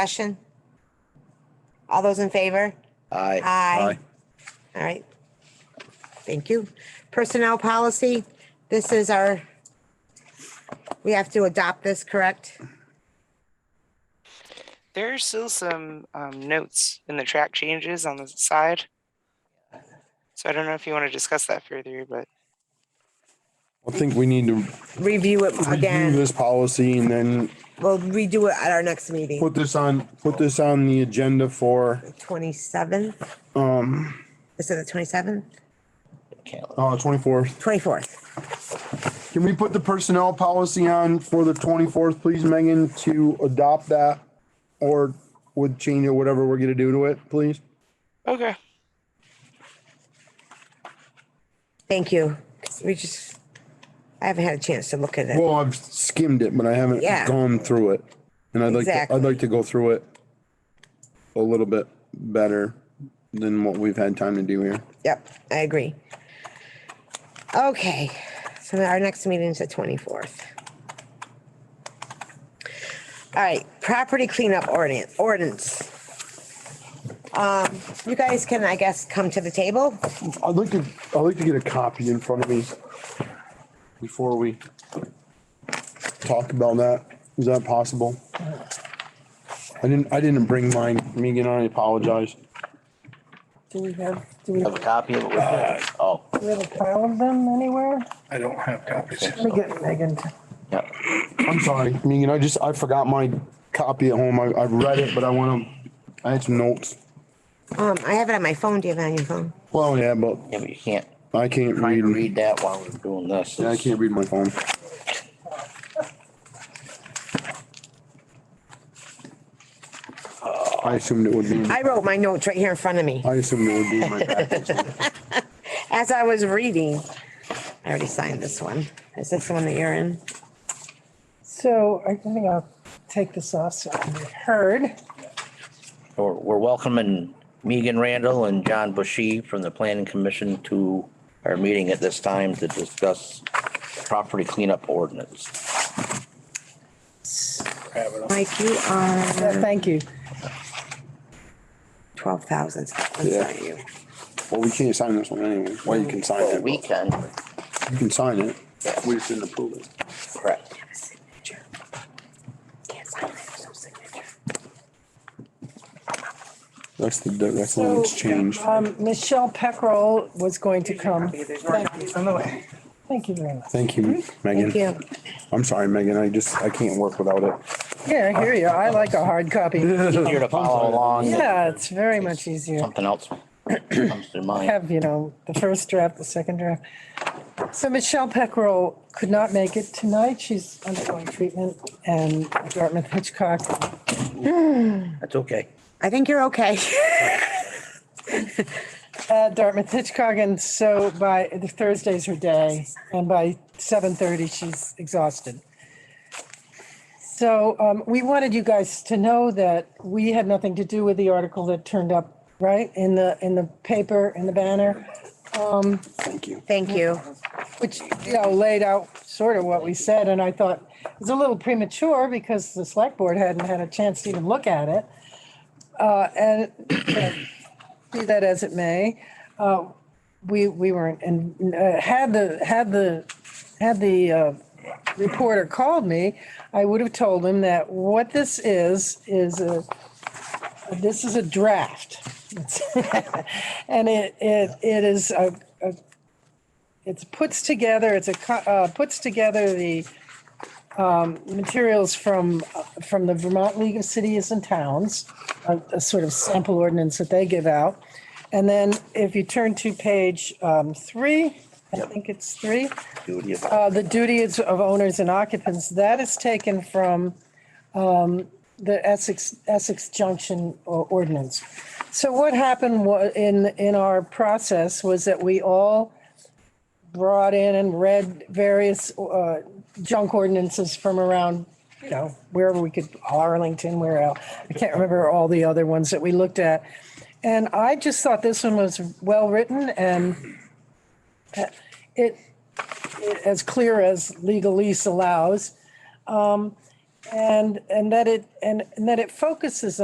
Question? All those in favor? Aye. Aye. All right. Thank you. Personnel policy, this is our, we have to adopt this, correct? There are still some um, notes in the track changes on the side. So I don't know if you want to discuss that further, but I think we need to Review it review again. this policy and then We'll redo it at our next meeting, put this on, put this on the agenda for, twenty-seventh. um, Is it the twenty-seventh? uh, twenty-fourth. Twenty-fourth. Can we put the personnel policy on for the twenty-fourth, please, Megan, to adopt that? Or would change it, whatever we're gonna do to it, please? okay. Thank you. We just, I haven't had a chance to look at it. Well, I've skimmed it, but I haven't Yeah. gone through it. And I'd like, to- Exactly. I'd like to go through it a little bit better than what we've had time to do here. Yep, I agree. Okay, so our next meeting's the twenty-fourth. All right, property cleanup ordinance, ordinance. Um, you guys can, I guess, come to the table. I'd like to, I'd like to get a copy in front of me before we talk about that. Is that possible? I didn't, I didn't bring mine. Megan, I apologize. Do we have, do we Have a copy of it with you? Oh, do we have a pile of them anywhere? I don't have copies. Let me get Megan. to- yeah. I'm sorry, Megan, I just, I forgot my copy at home. I, I read it, but I want to, I had some notes. Um, I have it on my phone. Do you have it on your phone? Well, yeah, but Yeah, but you can't I can't try read. to read that while we're doing this. Yeah, I can't read my phone. I assumed it would be, I wrote my notes right here in front of me I assumed it would be in my package. as I was reading. I already signed this one. Is this the one that you're in? So I think I'll take this off so I can be heard. We're, we're welcoming Megan Randall and John Bushy from the Planning Commission to our meeting at this time to discuss property cleanup ordinance. Mike, you are Yeah, Thank you. twelve thousand. I'm Yeah. sorry, you. Well, we can't sign this one anyway. Well, you can sign it. We You can, can sign it. We just didn't approve it. correct. signature. Can't sign it, there's no signature. That's the, that's the one that's changed. Um, Michelle Peckrell was going to come. Thank you very much. Thank you, Thank Megan. you. I'm sorry, Megan. I just, I can't work without it. Yeah, I hear you. I like a hard copy. Easier to follow along. Yeah, it's very much easier. Something else comes to mind. have, you know, the first draft, the second draft. So Michelle Peckrell could not make it tonight. She's undergoing treatment and Dartmouth Hitchcock. That's okay. I think you're okay. At Dartmouth Hitchcock, and so by Thursday's her day, and by seven thirty, she's exhausted. So um, we wanted you guys to know that we had nothing to do with the article that turned up, right, in the in the paper, in the banner. Thank you. Thank you. which, you know, laid out sort of what we said, and I thought it was a little premature because the select board hadn't had a chance to even look at it. Uh, and uh, be that as it may, uh, we, we weren't, and, uh, had the, had the, had the, uh, reporter called me, I would have told him that what this is, is a, this is a draft. And it, it, it is a, a it's puts together, it's a, co- uh, puts together the um, materials from, uh, from the Vermont League of Cities and Towns, a, a sort of sample ordinance that they give out. And then if you turn to page um, three, I think it's three, Duty of- uh, the duties of owners and occupants, that is taken from um, the Essex, Essex Junction o- ordinance. So what happened wa- in, in our process was that we all brought in and read various uh, junk ordinances from around, you know, wherever we could, Arlington, where else. I can't remember all the other ones that we looked at. And I just thought this one was well-written and uh, it, as clear as legalese allows. Um, And, and that it, and and that it focuses